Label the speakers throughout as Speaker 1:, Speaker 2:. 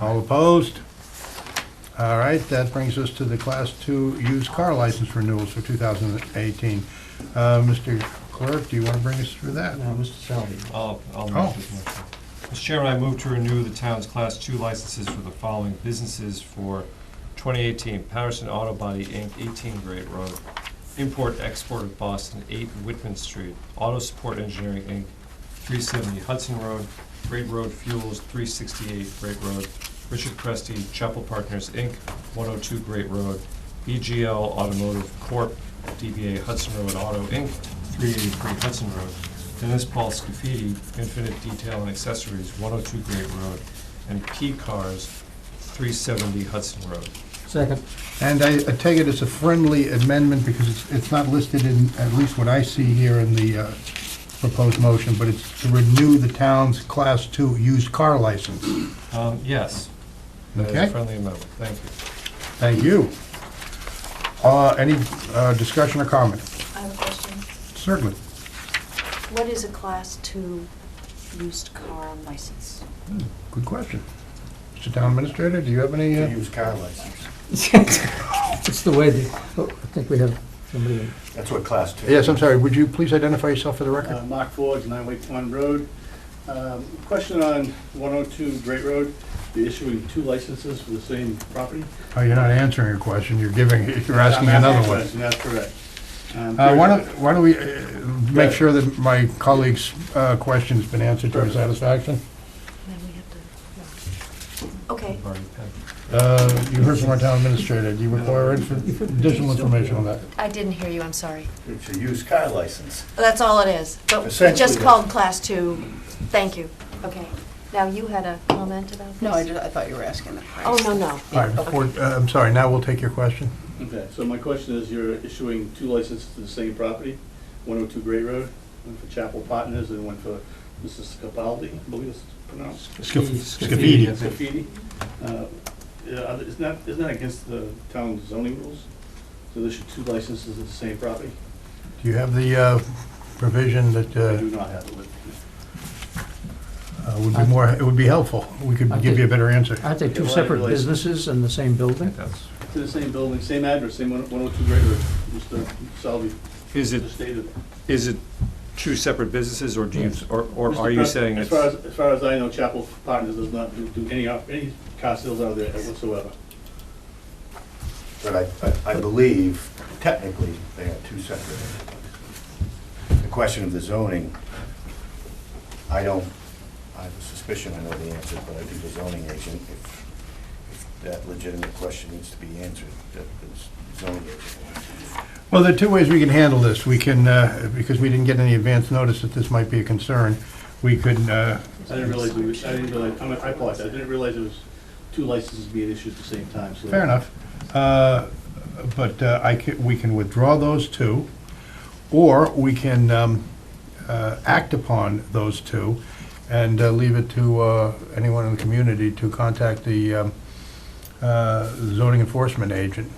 Speaker 1: All opposed? All right, that brings us to the Class 2 used car license renewals for 2018. Uh, Mr. Clerk, do you want to bring us through that?
Speaker 2: Now, Mr. Salvi.
Speaker 3: I'll, I'll
Speaker 1: Oh.
Speaker 3: make this motion. Mr. Chairman, I move to renew the town's Class 2 licenses for the following businesses for 2018. Patterson Auto Body, Inc., 18 Great Road. Import Export of Boston, 8 Whitman Street. Auto Support Engineering, Inc., 370 Hudson Road. Great Road Fuels, 368 Great Road. Richard Cresty, Chapel Partners, Inc., 102 Great Road. BGL Automotive Corp., DBA Hudson Road Auto, Inc., 383 Hudson Road. Dennis Paul Scafidi, Infinite Detail and Accessories, 102 Great Road. And P Cars, 370 Hudson Road.
Speaker 2: Second.
Speaker 1: And I I take it it's a friendly amendment because it's- it's not listed in, at least what I see here in the uh, proposed motion, but it's to renew the town's Class 2 used car license.
Speaker 3: Um, Yes. that is a
Speaker 1: Okay.
Speaker 3: Friendly amendment, thank you.
Speaker 1: Thank you. Uh, Any uh, discussion or comment?
Speaker 4: I have a question.
Speaker 1: Certainly.
Speaker 4: What is a class two used car license?
Speaker 1: Good question. Mr. Town Administrator, do you have any? uh,
Speaker 5: Used car license.
Speaker 2: It's the way the, oh, I think we have somebody. in.
Speaker 5: That's what class two.
Speaker 1: Yes, I'm sorry, would you please identify yourself for the record?
Speaker 6: Uh, Mark Ford, Nine Wake Pond Road. Um, Question on 102 Great Road, you're issuing two licenses for the same property?
Speaker 1: Oh, you're not answering your question, you're giving, you're asking
Speaker 6: I'm
Speaker 1: another
Speaker 6: a
Speaker 1: one.
Speaker 6: question, That's correct. Um,
Speaker 1: Uh, Why don't, why don't we uh, make
Speaker 6: ahead.
Speaker 1: sure that my colleague's uh, question's been answered to our satisfaction?
Speaker 4: Then we have to. Okay,
Speaker 3: You've already passed.
Speaker 1: Uh, You heard from our Town Administrator, do you require info- additional information on that?
Speaker 4: I didn't hear you, I'm sorry.
Speaker 5: It's a used car license.
Speaker 4: That's all it is, but it's
Speaker 5: Essentially,
Speaker 4: just
Speaker 5: yeah.
Speaker 4: called class two. Thank you. Okay. Now, you had a comment about this?
Speaker 7: No, I just, I thought you were asking the price.
Speaker 4: Oh, no, no.
Speaker 1: All right, before- uh, I'm sorry, now we'll take your question.
Speaker 6: Okay, so my question is, you're issuing two licenses to the same property, 102 Great Road, one for Chapel Partners and one for Mrs. Capaldi, I believe it's pronounced.
Speaker 1: Scafidi.
Speaker 6: Graffiti. Uh, yeah, are there- Isn't that, isn't that against the town zoning rules? So there should two licenses at the same property?
Speaker 1: Do you have the uh, provision that
Speaker 6: I
Speaker 1: uh,
Speaker 6: do not have it with me.
Speaker 1: uh, would be more, it would be helpful? We could
Speaker 2: I
Speaker 1: give you a better answer.
Speaker 2: Aren't they two
Speaker 6: Yeah,
Speaker 2: separate
Speaker 6: liability.
Speaker 2: businesses in the same building?
Speaker 3: That's-
Speaker 6: To the same building, same address, same one- 102 Great Road, Mr. Salvi
Speaker 3: Is it,
Speaker 6: just stated.
Speaker 3: is it two separate businesses, or do you, or or
Speaker 6: Mr.
Speaker 3: are you
Speaker 6: Pres-
Speaker 3: saying
Speaker 6: As
Speaker 3: it's?
Speaker 6: far as, as far as I know, Chapel Partners does not do- do any, op- any car sales out of there whatsoever.
Speaker 5: But I, I- I believe technically they are two separate. entities. The question of the zoning, I don't, I have a suspicion I know the answer, but I think the zoning agent, if, if that legitimate question needs to be answered, that the zoning agent. will answer it.
Speaker 1: Well, there are two ways we can handle this. We can, uh, because we didn't get any advance notice that this might be a concern, we could, uh,
Speaker 6: I didn't realize, we was- I didn't realize, I mean, I apologize, I didn't realize it was two licenses being issued at the same time, so.
Speaker 1: fair enough, Uh, but uh, I ca- we can withdraw those two, or we can um, uh, act upon those two and uh, leave it to uh, anyone in the community to contact the um, uh, zoning enforcement agent.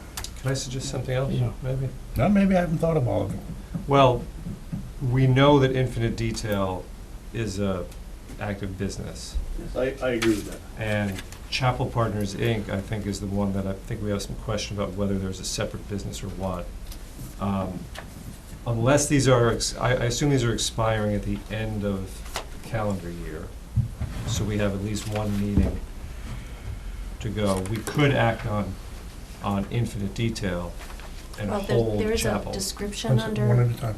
Speaker 3: Can I suggest something else,
Speaker 2: Yeah.
Speaker 3: maybe?
Speaker 1: Now, maybe I haven't thought of all of them.
Speaker 3: Well, we know that Infinite Detail is a active business.
Speaker 6: Yes, I, I agree with that.
Speaker 3: And Chapel Partners, Inc., I think, is the one that I think we have some question about whether there's a separate business or what. Um, Unless these are, ex- I, I assume these are expiring at the end of calendar year, so we have at least one meeting to go. We could act on, on infinite detail and
Speaker 4: Well,
Speaker 3: hold
Speaker 4: there- there is a
Speaker 3: Chapel.
Speaker 4: description
Speaker 1: One
Speaker 4: under,
Speaker 1: at a time.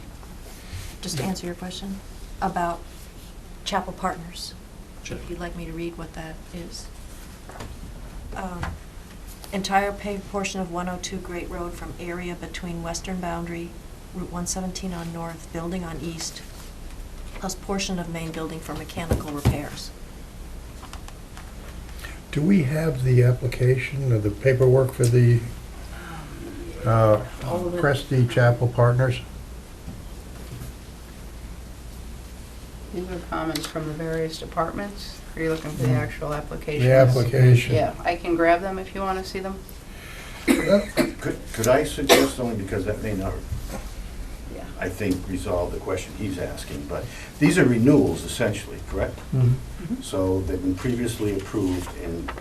Speaker 4: just to answer your question, about Chapel Partners.
Speaker 3: Sure.
Speaker 4: If you'd like me to read what that is. Um, Entire paved portion of 102 Great Road from area between western boundary, Route 117 on north, building on east, plus portion of main building for mechanical repairs.
Speaker 1: Do we have the application or the paperwork for the uh,
Speaker 4: All of it.
Speaker 1: Cresty Chapel Partners?
Speaker 7: These are comments from the various departments. Are you looking for the actual applications?
Speaker 1: Mm. The application?
Speaker 7: Yeah, I can grab them if you want to see them.
Speaker 5: Could, could I suggest only because that may not
Speaker 7: Yeah.
Speaker 5: I think, resolve the question he's asking, but these are renewals essentially, correct?
Speaker 2: Mhm.
Speaker 5: So they've been previously approved and